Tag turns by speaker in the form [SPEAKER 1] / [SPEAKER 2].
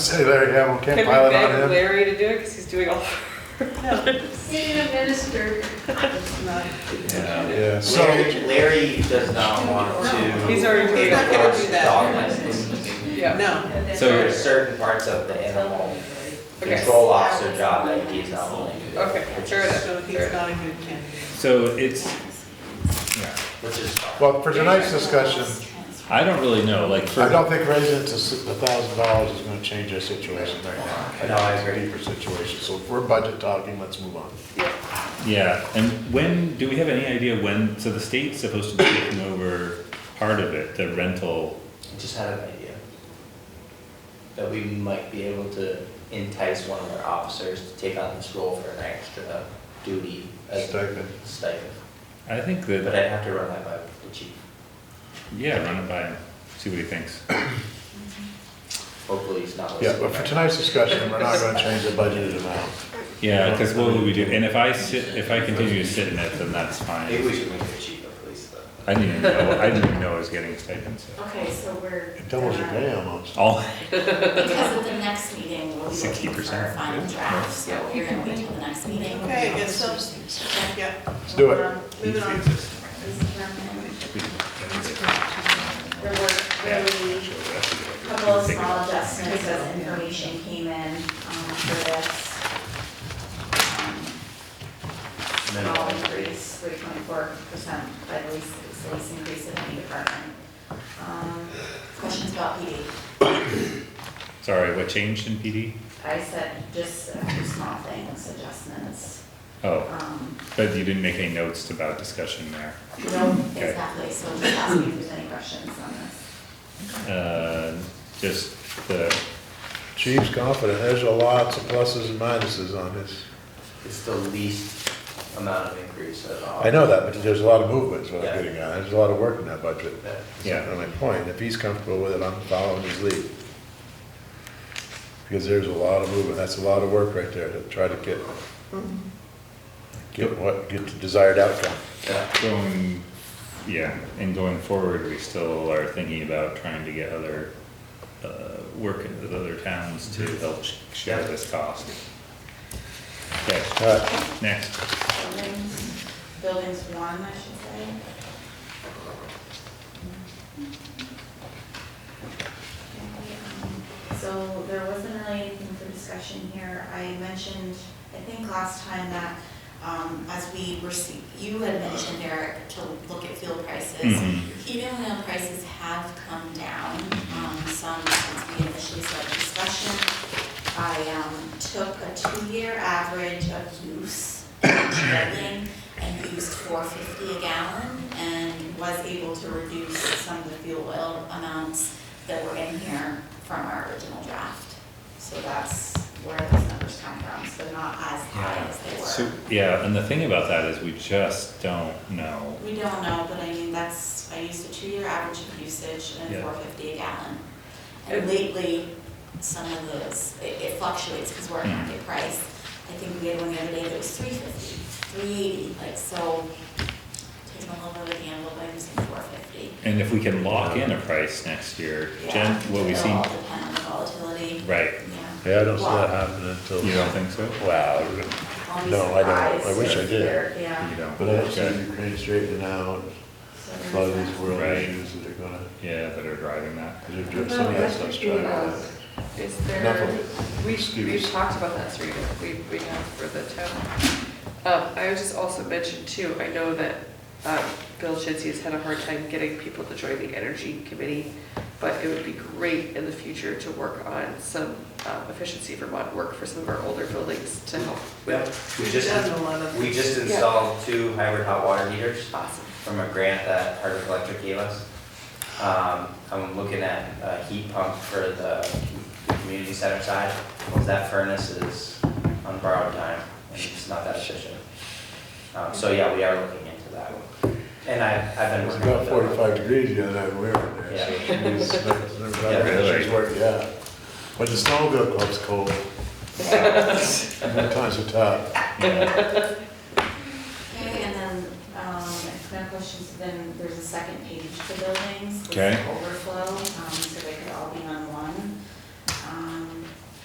[SPEAKER 1] say Larry Hamlin
[SPEAKER 2] Can we
[SPEAKER 1] can't pile it
[SPEAKER 2] beg
[SPEAKER 1] on him.
[SPEAKER 2] Larry to do it, because he's doing all.
[SPEAKER 3] Being a minister, it's not.
[SPEAKER 4] Yeah.
[SPEAKER 1] Yeah, so,
[SPEAKER 4] Larry, Larry does not want to.
[SPEAKER 2] He's already paid.
[SPEAKER 5] He's not gonna do that.
[SPEAKER 2] Yeah.
[SPEAKER 5] No,
[SPEAKER 4] So there's certain parts of the animal
[SPEAKER 2] Okay.
[SPEAKER 4] control officer job that he's not willing to do.
[SPEAKER 2] Okay,
[SPEAKER 4] which
[SPEAKER 2] fair enough.
[SPEAKER 4] is-
[SPEAKER 5] so he's not a good candidate.
[SPEAKER 6] So it's, yeah,
[SPEAKER 4] Which is fine.
[SPEAKER 1] well, for tonight's discussion,
[SPEAKER 6] I don't really know, like for.
[SPEAKER 1] I don't think raising it to a thousand dollars is gonna change our situation right now.
[SPEAKER 4] No, I agree.
[SPEAKER 1] Deeper situation, so if we're budget talking, let's move on.
[SPEAKER 2] Yeah.
[SPEAKER 6] Yeah, and when, do we have any idea when, so the state's supposed to be taking over part of it, the rental,
[SPEAKER 4] I just had an idea. That we might be able to entice one of our officers to take on this role for an extra duty as a
[SPEAKER 1] Stipend.
[SPEAKER 4] stipend.
[SPEAKER 6] I think
[SPEAKER 4] But
[SPEAKER 6] that,
[SPEAKER 4] I'd have to run that by the chief.
[SPEAKER 6] yeah, run it by him, see what he thinks.
[SPEAKER 4] Hopefully he's not
[SPEAKER 1] Yeah,
[SPEAKER 4] listening.
[SPEAKER 1] but for tonight's discussion, we're not gonna change the budgeted amount.
[SPEAKER 6] Yeah, cause what would we do, and if I sit, if I continue to sit in it, then that's
[SPEAKER 4] Maybe
[SPEAKER 6] fine.
[SPEAKER 4] we should make the chief a police though.
[SPEAKER 6] I didn't even know, I didn't even know I was getting a stipend, so.
[SPEAKER 7] Okay, so we're.
[SPEAKER 1] It doubles your pay almost.
[SPEAKER 6] All,
[SPEAKER 7] Because at the next meeting, we'll be looking for
[SPEAKER 6] 60%,
[SPEAKER 7] a final
[SPEAKER 6] yeah.
[SPEAKER 7] draft, so you're gonna wait till the next meeting. Um,
[SPEAKER 5] Okay, I guess so. Yeah,
[SPEAKER 1] Let's do it.
[SPEAKER 5] moving on.
[SPEAKER 7] There were really a couple of small adjustments as information came in, um, for this. Um, All increase, three point four percent by the least, it's the least increase in any department. Um, Questions about PD?
[SPEAKER 6] sorry, what changed in PD?
[SPEAKER 7] I said just a few small things, adjustments.
[SPEAKER 6] Oh,
[SPEAKER 7] Um,
[SPEAKER 6] but you didn't make any notes about discussion there.
[SPEAKER 7] No,
[SPEAKER 6] Okay.
[SPEAKER 7] exactly, so just ask me if there's any questions on this.
[SPEAKER 6] Uh, just the,
[SPEAKER 1] Chief's confident, there's a lots of pluses and minuses on this.
[SPEAKER 4] It's the least amount of increase at all.
[SPEAKER 1] I know that, but there's a lot of movement, is what
[SPEAKER 4] Yeah.
[SPEAKER 1] I'm getting at, there's a lot of work in that budget.
[SPEAKER 4] Yeah.
[SPEAKER 6] Yeah.
[SPEAKER 1] And my point, if he's comfortable with it, I'm following his lead. Because there's a lot of movement, that's a lot of work right there to try to get, get what, get the desired outcome.
[SPEAKER 4] Yeah.
[SPEAKER 6] Going, yeah, and going forward, we still are thinking about trying to get other, uh, work with other towns to help sh- share this cost. Okay,
[SPEAKER 1] All right,
[SPEAKER 6] next,
[SPEAKER 7] Buildings, buildings one, I should say. So there wasn't really anything for discussion here. I mentioned, I think last time that, um, as we were, see- you had mentioned, Eric, to look at fuel prices.
[SPEAKER 6] Mhm.
[SPEAKER 7] Even though prices have come down, um, some since we initially started discussion, I um, took a two-year average of use of each building and used four fifty a gallon and was able to reduce some of the fuel oil amounts that were in here from our original draft. So that's where those numbers come from, so not as high as they
[SPEAKER 6] so,
[SPEAKER 7] were.
[SPEAKER 6] yeah, and the thing about that is we just don't know.
[SPEAKER 7] We don't know, but I mean, that's, I used a two-year average of usage and
[SPEAKER 6] Yeah.
[SPEAKER 7] four fifty a gallon.
[SPEAKER 2] And-
[SPEAKER 7] And lately, some of those, it it fluctuates because we're at
[SPEAKER 1] Mm.
[SPEAKER 7] market price. I think we had one the other day that was three fifty, three eighty, like, so taking a little bit of the envelope, I'm using four fifty.
[SPEAKER 6] And if we can lock in a price next year, Jen,
[SPEAKER 7] Yeah,
[SPEAKER 6] what we
[SPEAKER 7] it'll
[SPEAKER 6] see,
[SPEAKER 7] all depend on the volatility,
[SPEAKER 6] right,
[SPEAKER 7] yeah.
[SPEAKER 1] yeah, I don't see that happening until.
[SPEAKER 6] you don't think so?
[SPEAKER 1] Wow,
[SPEAKER 7] I'll be
[SPEAKER 1] No, I don't. I
[SPEAKER 7] surprised
[SPEAKER 1] wish I
[SPEAKER 7] if
[SPEAKER 1] did.
[SPEAKER 7] there- Yeah.
[SPEAKER 6] You don't,
[SPEAKER 1] but I see
[SPEAKER 6] okay,
[SPEAKER 1] Ukraine straightening out,
[SPEAKER 7] So
[SPEAKER 1] a
[SPEAKER 7] there's
[SPEAKER 1] lot of these
[SPEAKER 7] that.
[SPEAKER 1] world
[SPEAKER 6] Right.
[SPEAKER 1] issues that are gonna,
[SPEAKER 6] yeah, that are driving that.
[SPEAKER 1] because they're- some of that stuff's driving that.
[SPEAKER 2] Is
[SPEAKER 1] Enough
[SPEAKER 2] there,
[SPEAKER 1] of
[SPEAKER 2] we, we've
[SPEAKER 1] excuse.
[SPEAKER 2] talked about that, Serena, we, we have for the town. Um, I was just also mentioned too, I know that, um, Bill Shinsey has had a hard time getting people to join the energy committee, but it would be great in the future to work on some, um, efficiency Vermont work for some of our older buildings to help with.
[SPEAKER 4] We
[SPEAKER 5] We've done
[SPEAKER 4] just,
[SPEAKER 5] a lot of.
[SPEAKER 4] we just installed two hybrid hot water heaters.
[SPEAKER 2] Awesome.
[SPEAKER 4] from a grant that Hardwick Electric gave us. Um, I'm looking at a heat pump for the the community center side, because that furnace is on borrowed time, and it's not that efficient. Um, so yeah, we are looking into that. And I, I've
[SPEAKER 1] It
[SPEAKER 4] been
[SPEAKER 1] was
[SPEAKER 4] working.
[SPEAKER 1] about
[SPEAKER 4] with them.
[SPEAKER 1] forty-five degrees the other night when we were in there, so she was, she was
[SPEAKER 4] Yeah,
[SPEAKER 6] really.
[SPEAKER 1] working, yeah. When the snowmobile club's cold, sometimes it's tough.
[SPEAKER 6] Yeah.
[SPEAKER 7] Okay, and then, um, if no questions, then there's a second page for buildings. this
[SPEAKER 6] Okay.
[SPEAKER 7] Overflow, um,